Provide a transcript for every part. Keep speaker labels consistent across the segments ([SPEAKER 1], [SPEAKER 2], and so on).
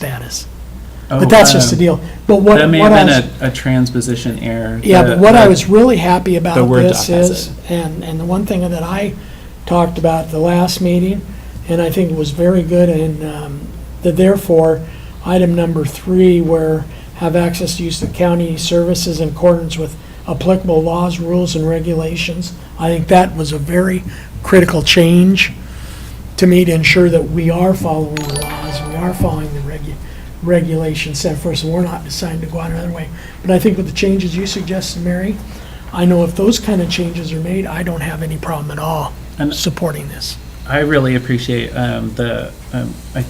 [SPEAKER 1] status.
[SPEAKER 2] Oh,
[SPEAKER 1] But that's just the
[SPEAKER 2] um,
[SPEAKER 1] deal. But what,
[SPEAKER 2] That may
[SPEAKER 1] what I
[SPEAKER 2] have
[SPEAKER 1] was,
[SPEAKER 2] been a, a transposition error.
[SPEAKER 1] yeah,
[SPEAKER 2] The-
[SPEAKER 1] but what I
[SPEAKER 2] the-
[SPEAKER 1] was really happy
[SPEAKER 2] the
[SPEAKER 1] about
[SPEAKER 2] Word
[SPEAKER 1] this
[SPEAKER 2] doc has
[SPEAKER 1] is, and, and the one thing that I talked about at the last meeting, and I think was very good, and, um, the therefore, item number three, where have access to use of county services in accordance with applicable laws, rules, and regulations. I think that was a very critical change to me to ensure that we are following the laws, we are following the regu- regulations set for us, and we're not deciding to go out another way. But I think with the changes you suggested, Mary, I know if those kind of changes are made, I don't have any problem at all
[SPEAKER 2] And-
[SPEAKER 1] supporting this.
[SPEAKER 2] I really appreciate um, the um, I,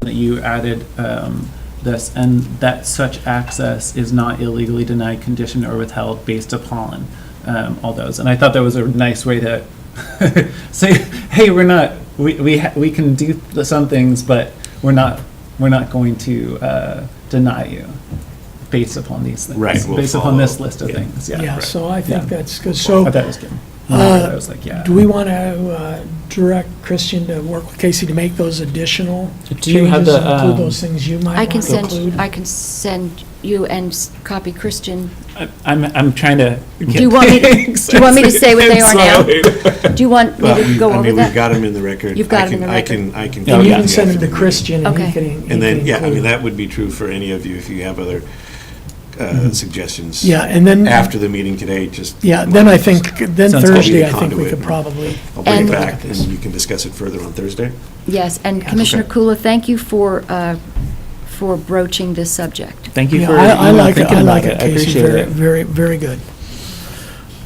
[SPEAKER 2] that you added um, this and that such access is not illegally denied, conditioned, or withheld based upon um, all those. And I thought that was a nice way to say, hey, we're not we we ha- we can do the- some things, but we're not we're not going to uh, deny you based upon these things.
[SPEAKER 3] Right, we'll
[SPEAKER 2] based upon this
[SPEAKER 3] follow.
[SPEAKER 2] list of
[SPEAKER 3] Yeah.
[SPEAKER 2] things. Yeah.
[SPEAKER 1] Yeah, so I think
[SPEAKER 2] Yeah.
[SPEAKER 1] that's good.
[SPEAKER 2] I
[SPEAKER 1] So
[SPEAKER 2] thought that was good.
[SPEAKER 1] Oh. Uh,
[SPEAKER 2] I was like, yeah.
[SPEAKER 1] do we want to direct Christian to work with Casey to make those additional
[SPEAKER 2] Do you
[SPEAKER 1] changes
[SPEAKER 2] have
[SPEAKER 1] and
[SPEAKER 2] the,
[SPEAKER 1] include
[SPEAKER 2] um,
[SPEAKER 1] those things you might
[SPEAKER 4] I
[SPEAKER 1] want
[SPEAKER 4] can
[SPEAKER 1] to
[SPEAKER 4] send,
[SPEAKER 1] include?
[SPEAKER 4] I can send you and s- copy Christian.
[SPEAKER 2] I- I'm, I'm trying to.
[SPEAKER 4] Do you want me, do you want me to say what they are now? Do you want me
[SPEAKER 3] Well,
[SPEAKER 4] to
[SPEAKER 3] we-
[SPEAKER 4] go
[SPEAKER 3] I
[SPEAKER 4] over
[SPEAKER 3] mean, we've
[SPEAKER 4] that?
[SPEAKER 3] got them in the record.
[SPEAKER 4] You've got
[SPEAKER 3] I
[SPEAKER 4] 'em
[SPEAKER 3] can-
[SPEAKER 4] in the record.
[SPEAKER 3] I can, I can.
[SPEAKER 1] And you
[SPEAKER 2] yeah.
[SPEAKER 1] can send them to
[SPEAKER 3] Oh, Yeah.
[SPEAKER 1] Christian and he
[SPEAKER 4] Okay.
[SPEAKER 1] can he can
[SPEAKER 3] And then, yeah, I mean,
[SPEAKER 1] include-
[SPEAKER 3] that would be true for any of you if you have other uh, suggestions.
[SPEAKER 1] Mm-hmm. Yeah, and then.
[SPEAKER 3] After the meeting today, just.
[SPEAKER 1] Yeah, then I think, then
[SPEAKER 2] Sounds good.
[SPEAKER 1] Thursday, I
[SPEAKER 3] Be a
[SPEAKER 1] think we
[SPEAKER 3] conduit.
[SPEAKER 1] could probably,
[SPEAKER 3] I'll bring
[SPEAKER 4] And-
[SPEAKER 3] it back and you can discuss it further on Thursday.
[SPEAKER 4] Yes, and Commissioner Kula, thank you for, uh, for broaching this subject.
[SPEAKER 2] Thank you
[SPEAKER 1] yeah,
[SPEAKER 2] for
[SPEAKER 1] I I
[SPEAKER 2] you know,
[SPEAKER 1] like it,
[SPEAKER 2] thinking
[SPEAKER 1] I
[SPEAKER 2] about
[SPEAKER 1] like
[SPEAKER 2] it.
[SPEAKER 1] it,
[SPEAKER 2] I
[SPEAKER 1] Casey,
[SPEAKER 2] appreciate
[SPEAKER 1] very,
[SPEAKER 2] it.
[SPEAKER 1] very, very good.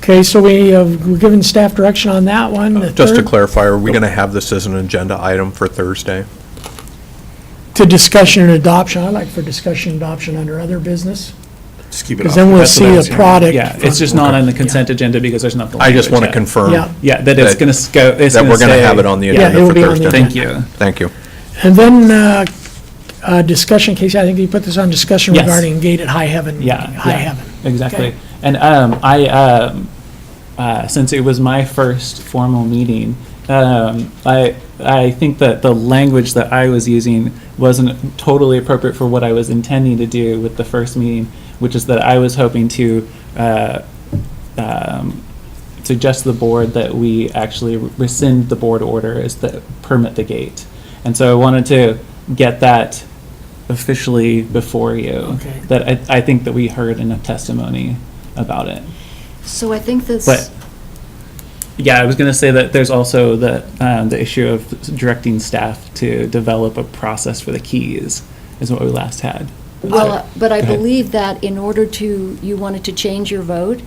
[SPEAKER 1] Okay, so we have, we're giving staff direction on that
[SPEAKER 2] Uh,
[SPEAKER 1] one, the
[SPEAKER 5] Just to
[SPEAKER 1] third,
[SPEAKER 5] clarify, are we going to have this as an agenda item for Thursday?
[SPEAKER 1] to discussion and adoption, I like for discussion and adoption under other business,
[SPEAKER 3] Just keep it
[SPEAKER 1] because
[SPEAKER 3] off.
[SPEAKER 1] then we'll
[SPEAKER 3] That's what I
[SPEAKER 1] see a
[SPEAKER 3] was hearing.
[SPEAKER 1] product.
[SPEAKER 2] Oh, Yeah, it's just not on the consent agenda because there's not the.
[SPEAKER 5] I just want to
[SPEAKER 2] language
[SPEAKER 5] confirm
[SPEAKER 1] Yeah.
[SPEAKER 5] that
[SPEAKER 2] yet. Yeah, that it's
[SPEAKER 5] that-
[SPEAKER 2] going to go. it's
[SPEAKER 5] we're going to
[SPEAKER 2] stay.
[SPEAKER 5] have it on the
[SPEAKER 1] Yeah,
[SPEAKER 5] agenda
[SPEAKER 1] it'll
[SPEAKER 5] for
[SPEAKER 1] be on the
[SPEAKER 5] Thursday.
[SPEAKER 2] Thank you.
[SPEAKER 5] Thank you.
[SPEAKER 1] And then, uh, uh, discussion, Casey, I think you put this on discussion
[SPEAKER 2] Yes.
[SPEAKER 1] regarding gate at High Heaven.
[SPEAKER 2] Yeah.
[SPEAKER 1] High
[SPEAKER 2] yeah,
[SPEAKER 1] Heaven.
[SPEAKER 2] Exactly.
[SPEAKER 1] Okay.
[SPEAKER 2] And um, I, um, uh, since it was my first formal meeting, um, I, I think that the language that I was using wasn't totally appropriate for what I was intending to do with the first meeting, which is that I was hoping to uh, um, suggest to the board that we actually rescind the board order is that permit the gate. And so I wanted to get that officially before you.
[SPEAKER 1] Okay.
[SPEAKER 2] That I, I think that we heard enough testimony about it.
[SPEAKER 4] So I think
[SPEAKER 2] But,
[SPEAKER 4] this,
[SPEAKER 2] yeah, I was going to say that there's also the, um, the issue of directing staff to develop a process for the keys is what we last had.
[SPEAKER 4] well, but I
[SPEAKER 2] Go ahead.
[SPEAKER 4] believe that in order to, you wanted to change your vote?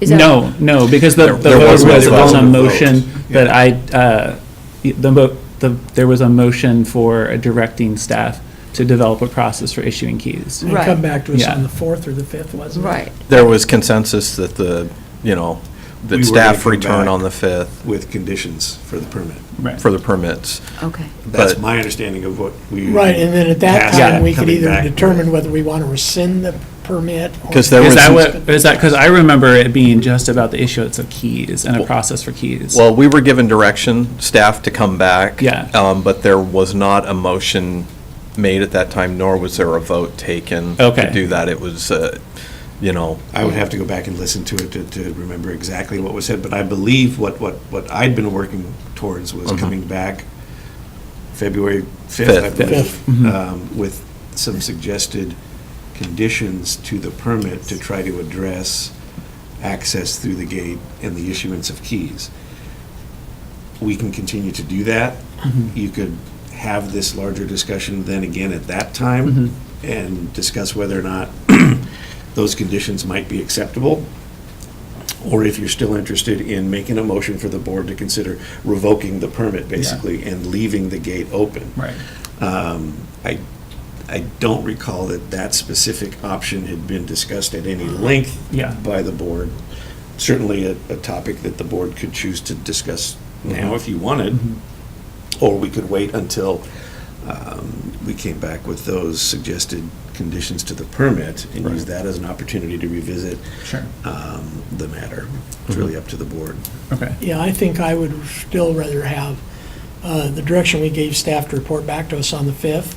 [SPEAKER 4] Is that-
[SPEAKER 2] No, no, because the, the
[SPEAKER 5] there
[SPEAKER 2] vote
[SPEAKER 5] was
[SPEAKER 2] was
[SPEAKER 5] no
[SPEAKER 2] on a
[SPEAKER 5] vote.
[SPEAKER 2] motion that I, uh, the, mo- the, there was a motion for directing staff to develop a process for issuing keys.
[SPEAKER 1] And
[SPEAKER 4] Right.
[SPEAKER 1] come back to us on
[SPEAKER 2] Yeah.
[SPEAKER 1] the fourth or the fifth, wasn't it?
[SPEAKER 4] Right,
[SPEAKER 5] There was consensus that the, you know,
[SPEAKER 3] We
[SPEAKER 5] that
[SPEAKER 3] were
[SPEAKER 5] staff
[SPEAKER 3] gonna come
[SPEAKER 5] return
[SPEAKER 3] back.
[SPEAKER 5] on the 5th
[SPEAKER 3] With conditions for the permit.
[SPEAKER 2] Right.
[SPEAKER 5] for the permits.
[SPEAKER 4] okay.
[SPEAKER 3] That's
[SPEAKER 5] But-
[SPEAKER 3] my understanding of what we.
[SPEAKER 1] Right, and then at that
[SPEAKER 3] passed
[SPEAKER 1] time, we could
[SPEAKER 3] coming
[SPEAKER 1] either
[SPEAKER 3] back.
[SPEAKER 1] determine whether we want to rescind the permit. or-
[SPEAKER 5] 'Cause there
[SPEAKER 2] Is
[SPEAKER 5] was
[SPEAKER 2] that what, is that, because I remember it being just about the issuance of keys and a process for keys.
[SPEAKER 5] Well, we were given direction, staff to come back.
[SPEAKER 2] Yeah.
[SPEAKER 5] um, But there was not a motion made at that time, nor was there a vote taken
[SPEAKER 2] Okay.
[SPEAKER 5] to do that. It was, uh, you know,
[SPEAKER 3] I would have to go back and listen to it to, to remember exactly what was said, but I believe what, what, what I'd been working towards was coming back February 5th, I
[SPEAKER 5] Mm-hmm. Fifth. Mm-hmm.
[SPEAKER 3] believe, um, with some suggested conditions to the permit to try to address access through the gate and the issuance of keys. We can continue to do that. You could have this larger discussion then again at that time and discuss whether or not those conditions might be acceptable, or if you're still interested in making a motion for the board to consider revoking the permit, basically, and leaving the gate open.
[SPEAKER 2] Right.
[SPEAKER 3] Um, I, I don't recall that that specific option had been discussed at any length
[SPEAKER 2] Yeah.
[SPEAKER 3] by the board. Certainly a, a topic that the board could choose to discuss now if you wanted,
[SPEAKER 2] Mm-hmm.
[SPEAKER 3] or we could wait until um, we came back with those suggested conditions to the permit and use that as an opportunity to revisit
[SPEAKER 2] Sure. Mm-hmm.
[SPEAKER 3] um, the matter. It's really up to the board.
[SPEAKER 2] Okay.
[SPEAKER 1] Yeah, I think I would still rather have uh, the direction we gave staff to report back to us on the 5th